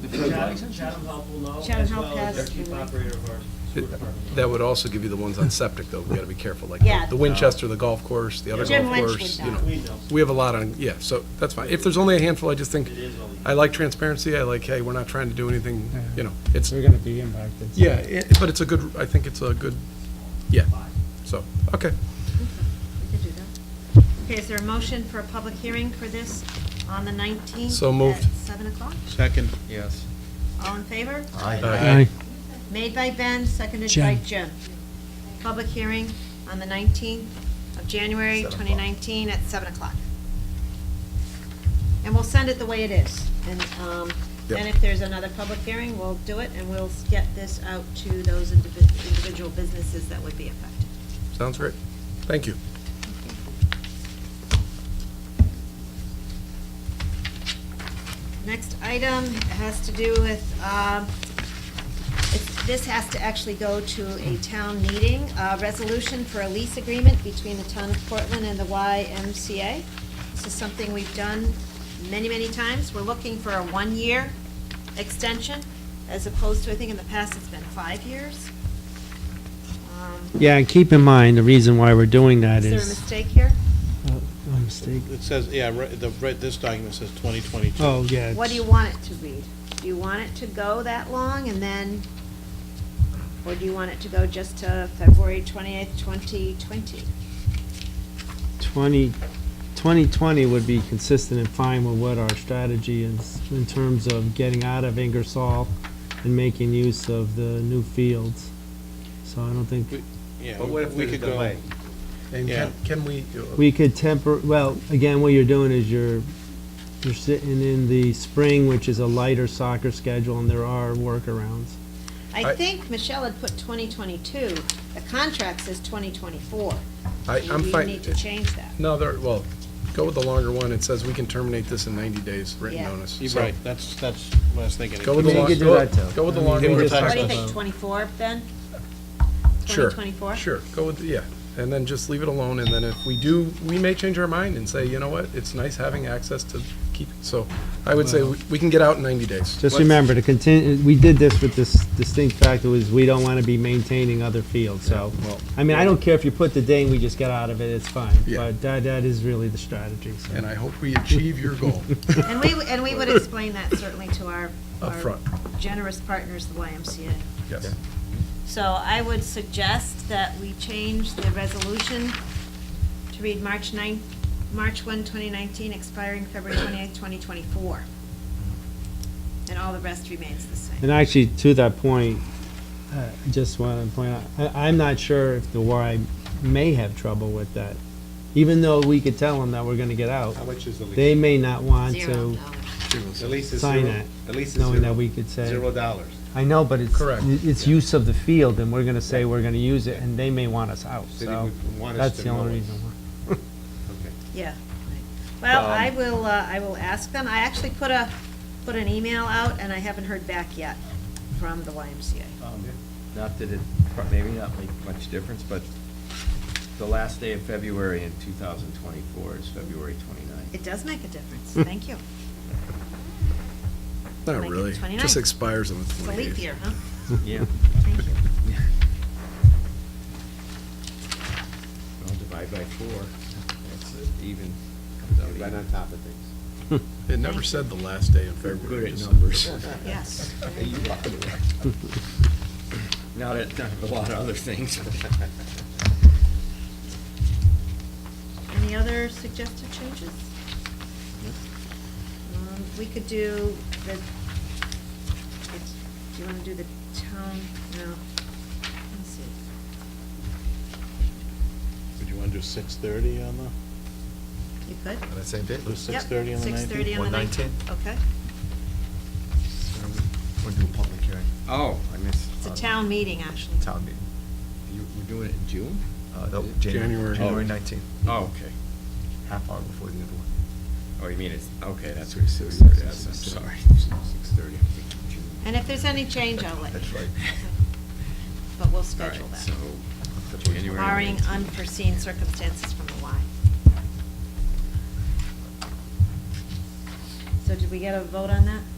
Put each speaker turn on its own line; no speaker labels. says that.
Chatham Chatham Health will know,
Chatham
as
Health
well as
has
the chief
the-
operator of our sewer department.
That would also give you the ones on septic, though, we gotta be careful, like
Yeah.
the Winchester, the golf course, the other
Jim
golf
Lynch
course,
would
you
know.
know.
We know.
We have a lot on, yeah, so that's fine. If there's only a handful, I just think,
It is only-
I like transparency, I like, hey, we're not trying to do anything, you know, it's,
We're gonna be impacted.
yeah, it- but it's a good, I think it's a good, yeah, so, okay.
We could do that. Okay, is there a motion for a public hearing for this on the 19th?
So moved.
At 7 o'clock?
Second, yes.
All in favor?
Aye.
Made by Ben, seconded by
Jen.
Jim. Public hearing on the 19th of January 2019 at 7 o'clock. And we'll send it the way it is. And um, then
Yep.
if there's another public hearing, we'll do it, and we'll get this out to those indivi- individual businesses that would be affected.
Sounds great. Thank you.
Next item has to do with, um, it's- this has to actually go to a town meeting, a resolution for a lease agreement between the town of Portland and the YMCA. This is something we've done many, many times. We're looking for a one-year extension, as opposed to, I think in the past, it's been five years. Um,
Yeah, and keep in mind, the reason why we're doing that
Is there a
is.
mistake here?
Oh, mistake.
It says, yeah, right, the, right, this document says 2022.
Oh, yeah.
What do you want it to read? Do you want it to go that long and then, or do you want it to go just to February 28th, 2020?
Twenty, twenty twenty would be consistent and fine with what our strategy is in terms of getting out of Ingersoll and making use of the new fields. So I don't think,
Yeah,
But what if
we
there's
could
a
go-
delay? And
Yeah.
can, can we, uh,
we could temper, well, again, what you're doing is you're, you're sitting in the spring, which is a lighter soccer schedule, and there are workarounds.
I
I-
think Michelle had put 2022. The contract says 2024.
I, I'm
Maybe
fine.
you need to change that.
No, there, well, go with the longer one. It says we can terminate this in 90 days, written
Yeah.
notice.
You're
So,
Right, that's, that's what I was thinking.
Go with the
I mean, you
long,
could do
go
that, too.
go with the
I mean,
longer
we
one.
just
What do you
Talk
think,
about-
24, Ben?
Sure,
2024?
Sure, go with, yeah, and then just leave it alone, and then if we do, we may change our mind and say, you know what, it's nice having access to keep, so I would say we we can get out in 90 days.
Just remember to continue, we did this with this distinct factor was we don't want to be maintaining other fields, so. I mean, I don't care if you put the day and we just get out of it, it's fine.
Yeah.
But that, that is really the strategy, so.
And I hope we achieve your goal
And we, and we would explain that certainly to our
up
our
front.
generous partners, the YMCA.
yes.
So I would suggest that we change the resolution to read March 9, March 1, 2019, expiring February 28, 2024. And all the rest remains the same.
And actually, to that point, uh, I just want to point out, I, I'm not sure if the Y may have trouble with that. Even though we could tell them that we're going to get out,
How much is the lease?
they may not want
Zero
to,
dollars.
The lease is
sign
zero,
it,
the lease is
knowing that
zero,
we could say.
zero dollars.
I know, but it's.
Correct.
It's use of the field, and we're gonna say we're gonna use it, and they may want us out,
City
so
would want us
that's
to
the
know it.
only reason why.
Okay.
Yeah. right. Well, I will, uh, I will ask them. I actually put a, put an email out, and I haven't heard back yet from the YMCA.
Not that it, pro- maybe not make much difference, but the last day of February in 2024 is February 29th.
It does make a difference. Thank you.
Not
Like
really,
it's
just
29.
expires on the
It's a
28th.
leap year, huh?
Yeah.
Thank you.
Well, divide by four, that's it, even, comes out
Right on
even.
top of things.
It never said the last day in February.
Good at
just-
numbers.
Yes.
Not at, not a lot of other things.
Any other suggested changes? Um, We could do the, it's- do you want to do the town, no, let's see.
Would you want to do 6:30 on the,
You could?
On that same day?
do 6:30 on the 19th?
6:30 on the 19th, okay.
We're doing public hearing,
Oh, I missed.
It's a town meeting, actually.
Uh, town meeting,
You- We're doing it in June?
uh, no,
January.
January, January nineteenth,
Oh, okay.
half hour before the other one.
Oh, you mean it's, okay, that's what it says. Yes, I'm sorry. 6:30, I'm thinking June.
And if there's any change, I'll let you.
That's right.
But we'll
All right,
schedule that,
so, January
barring
19th.
unforeseen circumstances from the Y. So did we get a vote on that?